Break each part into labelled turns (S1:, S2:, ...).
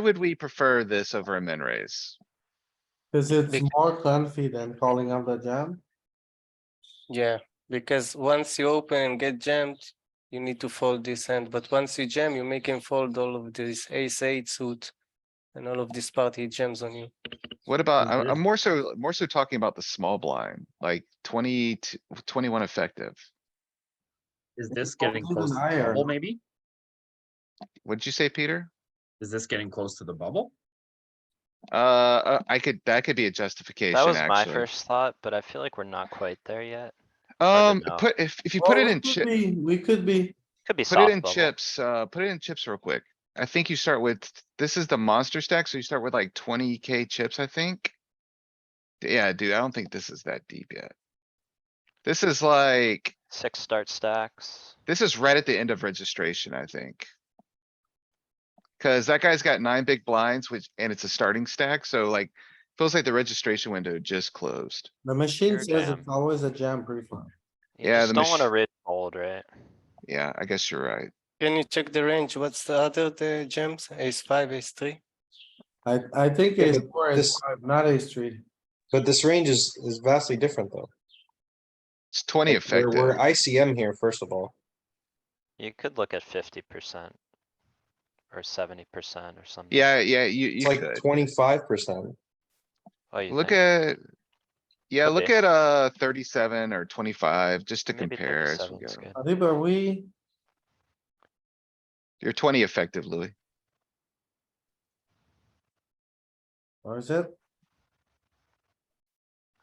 S1: would we prefer this over a min raise?
S2: Cause it's
S3: Big-
S2: more comfy than calling out the jam.
S3: Yeah, because once you open and get jammed, you need to fold this hand, but once you jam, you make him fold all of this ace eight suit. And all of this party jams on you.
S1: What about, I-
S4: Mm-hmm.
S2: Mhm.
S1: I'm more so, more so talking about the small blind, like 20 to- 21 effective.
S5: Is
S2: It's
S5: this
S2: called
S5: getting
S2: Golden
S5: close to the
S2: Iron.
S5: bubble, maybe?
S1: What'd you say, Peter?
S5: Is this getting close to the bubble?
S1: Uh, Uh, I could, that could be a justification,
S4: That was my
S1: actually.
S4: first thought, but I feel like we're not quite there yet.
S1: Um,
S4: know.
S1: put, if, if you put
S2: Well,
S1: it
S2: we
S1: in
S2: could
S1: chip,
S2: be- We could be,
S4: Could be
S1: put
S4: soft
S1: it in
S4: bubble.
S1: chips, uh, put it in chips real quick. I think you start with, this is the monster stack, so you start with like twenty K chips, I think. Yeah, dude, I don't think this is that deep yet. This is like,
S4: Six start stacks.
S1: this is right at the end of registration, I think. Cause that guy's got nine big blinds, which, and it's a starting stack, so like, feels like the registration window just closed.
S2: the machine
S4: Pure
S2: says it's
S4: jam.
S2: always a jam pre-flop.
S4: You
S1: Yeah,
S4: just
S1: the
S4: don't wanna
S1: mach-
S4: raise fold, right?
S1: Yeah, I guess you're right.
S3: Can you check the range? What's the other the jams? Ace five, ace three?
S2: I, I think
S6: Yeah,
S2: ace
S6: but
S2: four is
S6: this-
S2: five, not ace three.
S6: But this range is, is vastly different though.
S1: It's twenty
S6: Like, we're-
S1: effective.
S6: We're ICM here, first of all.
S4: You could look at fifty percent. Or seventy percent or something.
S1: Yeah, yeah, you,
S6: It's
S1: you could.
S6: like twenty-five percent.
S4: Oh, you
S1: Look
S4: think?
S1: at, yeah,
S4: Could
S1: look
S4: be.
S1: at, uh, thirty-seven or twenty-five, just to
S4: Maybe
S1: compare. as we
S4: 37 is
S1: go.
S4: good.
S2: Adib, are we,
S1: You're twenty effective, Louis.
S2: or is it?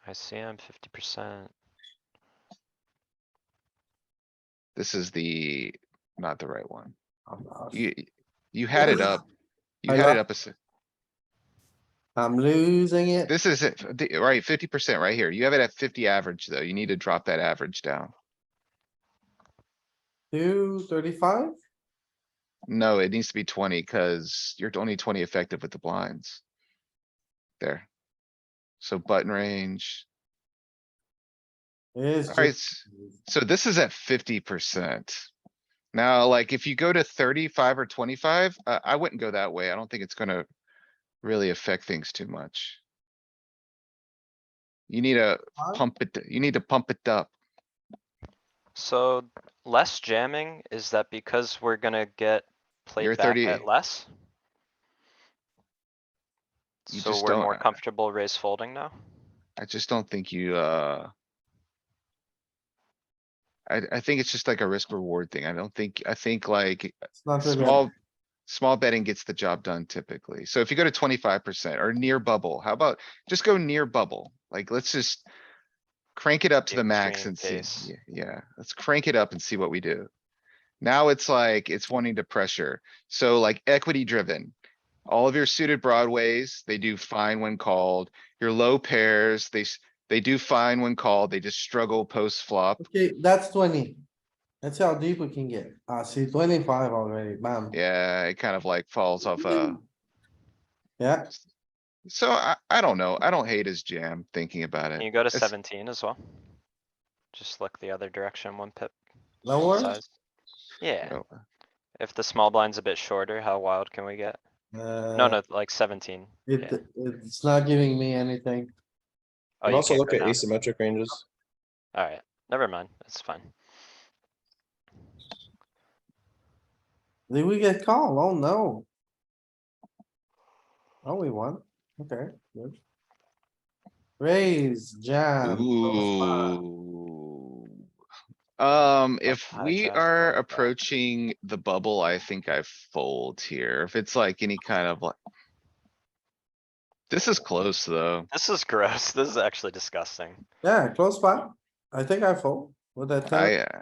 S4: I see him fifty percent.
S1: This is the, not the right one.
S2: I'm lost.
S1: You, you had it up. You
S2: I
S1: had it
S2: lo-
S1: up a se-
S2: I'm losing it.
S1: This is it, f- the- right, fifty percent right here. You have it at fifty average, though. You need to drop that average down.
S2: Two thirty-five?
S1: No, it needs to be twenty, cuz you're only twenty effective with the blinds. There. So button range,
S2: It's
S1: alright,
S2: just,
S1: s- so this is at fifty percent. Now, like, if you go to thirty-five or twenty-five, uh, I wouldn't go that way. I don't think it's gonna really affect things too much. You need to
S2: Huh?
S1: pump it, you need to pump it up.
S4: So less jamming, is that because we're gonna get
S1: You're
S4: played back
S1: 30.
S4: at less?
S1: You
S4: So
S1: just
S4: we're
S1: don't-
S4: more comfortable raise folding now?
S1: I just don't think you, uh. I, I think it's just like a risk reward thing. I don't think, I think like
S2: it's not really-
S1: small, small betting gets the job done typically. So if you go to twenty-five percent or near bubble, how about just go near bubble? Like, let's just crank it up to the max
S4: Extreme
S1: and see.
S4: case.
S1: Yeah, Yeah, let's crank it up and see what we do. Now it's like, it's wanting to pressure. So like equity driven. All of your suited broadways, they do fine when called. Your low pairs, they, s- they do fine when called. They just struggle post flop.
S2: Okay, that's twenty. That's how deep we can get. I see twenty-five already, bam.
S1: Yeah, it kind of like falls off uh, a.
S2: Yeah,
S1: So I, I don't know. I don't hate his jam thinking about
S4: Can
S1: it.
S4: you go to
S1: It's-
S4: seventeen as well? Just look the other direction, one pip
S2: lower,
S4: size. Yeah,
S1: Oh,
S4: if the small blind's a bit shorter, how wild can we get? No,
S2: uh,
S4: no, like seventeen. yeah.
S2: it, it's not giving me anything.
S4: Oh,
S6: And
S4: you
S6: also
S4: can't
S6: look
S4: go
S6: at
S4: down.
S6: asymmetric ranges.
S4: Alright, never mind, it's fine.
S2: Did we get called? Oh, no. Oh, we won. Okay, good. Raise, jam. close five.
S1: Ooh. Um, if
S4: high
S1: we
S4: jack,
S1: are
S4: low jack.
S1: approaching the bubble, I think I fold here. If it's like any kind of like. This is close, though.
S4: This is gross, this is actually disgusting.
S2: Yeah, close spot. I think I fold with that. tell
S1: I,
S2: you?
S1: uh,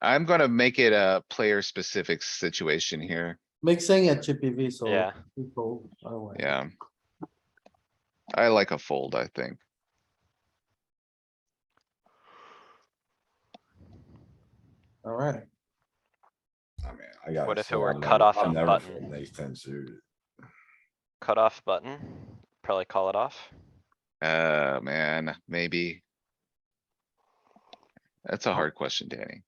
S1: I'm gonna make it a player specific situation here.
S2: Mixing at chippy V, so.
S4: Yeah,
S2: we fold. Oh, well.
S1: Yeah. I like a fold, I think.
S2: Alright,
S7: I mean, I got.
S4: What if it were cut off and button?
S7: Ace ten suited.
S4: cut off button, probably call it off.
S1: Uh, man, maybe. That's a hard question, Danny.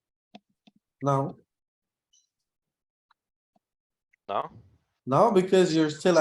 S2: no,
S4: No?
S2: No, because you're still